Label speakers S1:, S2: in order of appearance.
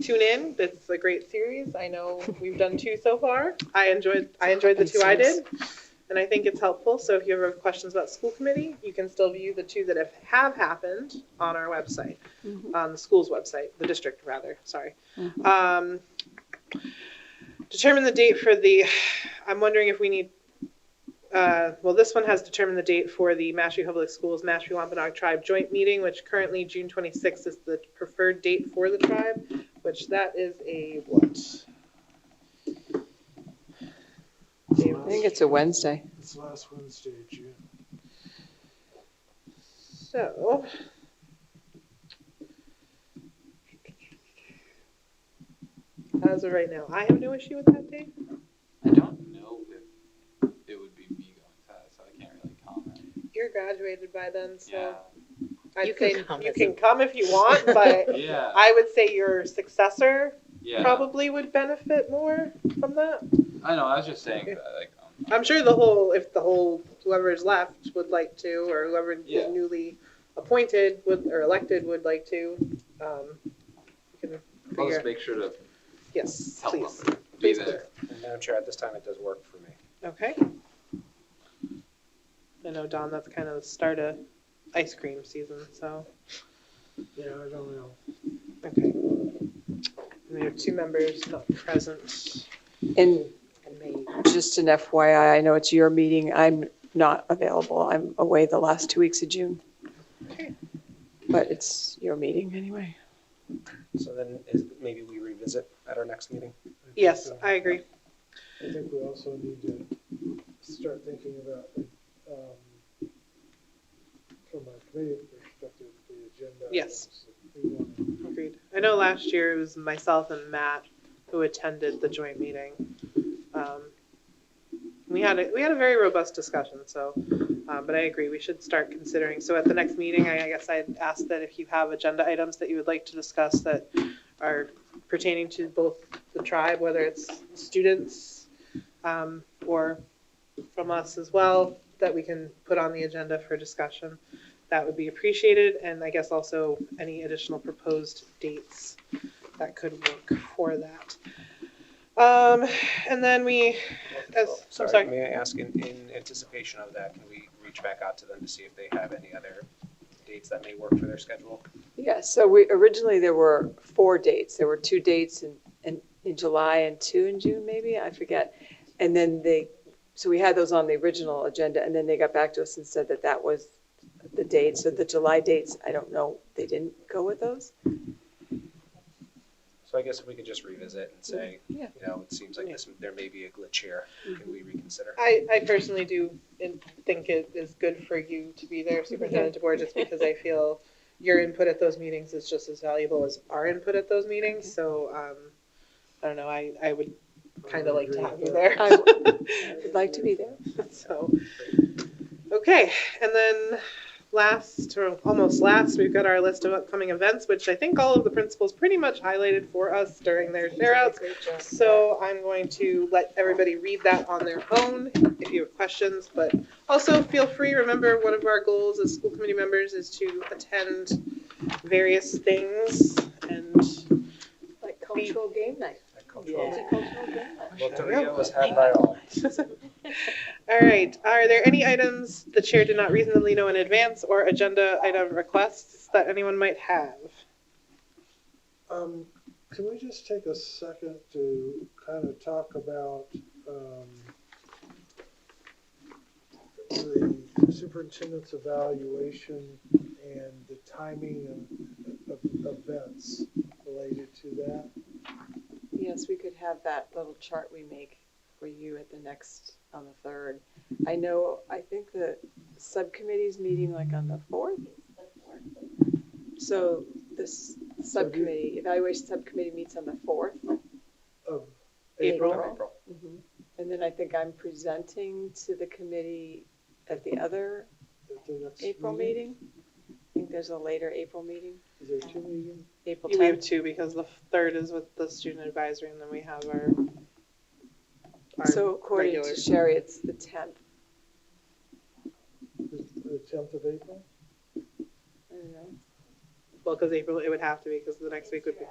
S1: tune in. This is a great series. I know we've done two so far. I enjoyed I enjoyed the two I did. And I think it's helpful. So if you ever have questions about school committee, you can still view the two that have, have happened on our website, on the school's website, the district rather, sorry. Um, determine the date for the, I'm wondering if we need, uh, well, this one has determined the date for the Mashpee Public Schools, Mashpee Wampanoag Tribe Joint Meeting, which currently June 26th is the preferred date for the tribe, which that is a what?
S2: I think it's a Wednesday.
S3: It's last Wednesday, June.
S1: So. As of right now, I have no issue with that date.
S4: I don't know if it would be me going to that, so I can't really comment.
S1: You're graduated by then,
S4: Yeah,
S1: so I'd
S5: You can
S1: say
S5: come
S1: you
S5: as
S1: can come if you want, but
S4: yeah,
S1: I would say your successor
S4: yeah.
S1: probably would benefit more from that.
S4: I know. I was just saying that, like, um,
S1: I'm sure the whole, if the whole, whoever's left would like to, or whoever
S4: Yeah.
S1: is newly appointed would, or elected would like to, um, you can
S4: I'll just
S1: figure,
S4: make sure to
S1: yes,
S4: help
S1: please.
S4: them be
S1: Please
S4: there.
S6: And Madam Chair, at this time, it does work for me.
S1: Okay. I know, Don, that's kind of the start of ice cream season, so,
S3: Yeah, I don't know.
S1: okay. And we have two members not present.
S2: And
S5: And May,
S2: just an FYI, I know it's your meeting. I'm not available. I'm away the last two weeks of June.
S1: Okay.
S2: But it's your meeting anyway.
S6: So then is, maybe we revisit at our next meeting?
S3: I think
S1: Yes,
S3: so.
S1: I agree.
S3: I think we also need to start thinking about, um, from a committee perspective, the agenda.
S1: Yes.
S3: items that we want.
S1: Agreed. I know last year it was myself and Matt who attended the joint meeting. Um, We had, a we had a very robust discussion, so, uh, but I agree, we should start considering. So at the next meeting, I I guess I'd ask that if you have agenda items that you would like to discuss that are pertaining to both the tribe, whether it's students um, or from us as well, that we can put on the agenda for discussion that would be appreciated, and I guess also any additional proposed dates that could work for that. Um, and then we, as, I'm sorry,
S6: Oh, May I ask, in, in anticipation of that, can we reach back out to them to see if they have any other dates that may work for their schedule?
S2: Yeah, so we, originally there were four dates. There were two dates in, in, in July and two in June, maybe, I forget. And then they, so we had those on the original agenda, and then they got back to us and said that that was the date. So the July dates, I don't know, they didn't go with those?
S6: So I guess if we could just revisit and say,
S2: Yeah.
S6: you know, it seems like this, there may be a glitch here. Can we reconsider?
S1: I, I personally do in- think it is good for you to be there, Superintendent DeBoer, just because I feel your input at those meetings is just as valuable as our input at those meetings, so, um, I don't know, I, I would kind of like to have you there.
S2: I would like to be there.
S1: So, okay, and then last, or almost last, we've got our list of upcoming events, which I think all of the principals pretty much highlighted for us during their shareouts. So I'm going to let everybody read that on their own if you have questions, but also feel free, remember, one of our goals as school committee members is to attend various things and
S2: Like
S1: cultural
S2: game night.
S6: That cultural-
S5: Yeah.
S6: Loteria was had by all.
S1: All right, are there any items the chair did not reasonably know in advance or agenda item requests that anyone might have?
S3: Um, can we just take a second to kind of talk about, um, the superintendent's evaluation and the timing of, of events related to that?
S2: Yes, we could have that little chart we make for you at the next, on the third. I know, I think the subcommittee's meeting like on the fourth. So this subcommittee, evaluation subcommittee meets on the fourth.
S3: of
S1: April.
S3: April.
S6: April.
S2: Mm-hmm. And then I think I'm presenting to the committee at the other
S3: at the next
S2: April meeting. I think there's a later April meeting,
S3: Is there two meetings?
S2: April
S1: We have
S2: tenth.
S1: two because the third is with the student advisory and then we have our. our
S2: So according
S1: regular-
S2: to Sherry, it's the tenth.
S3: The- The tenth of April?
S2: I don't know. uh,
S1: Well, because April, it would have to be because the next week would be,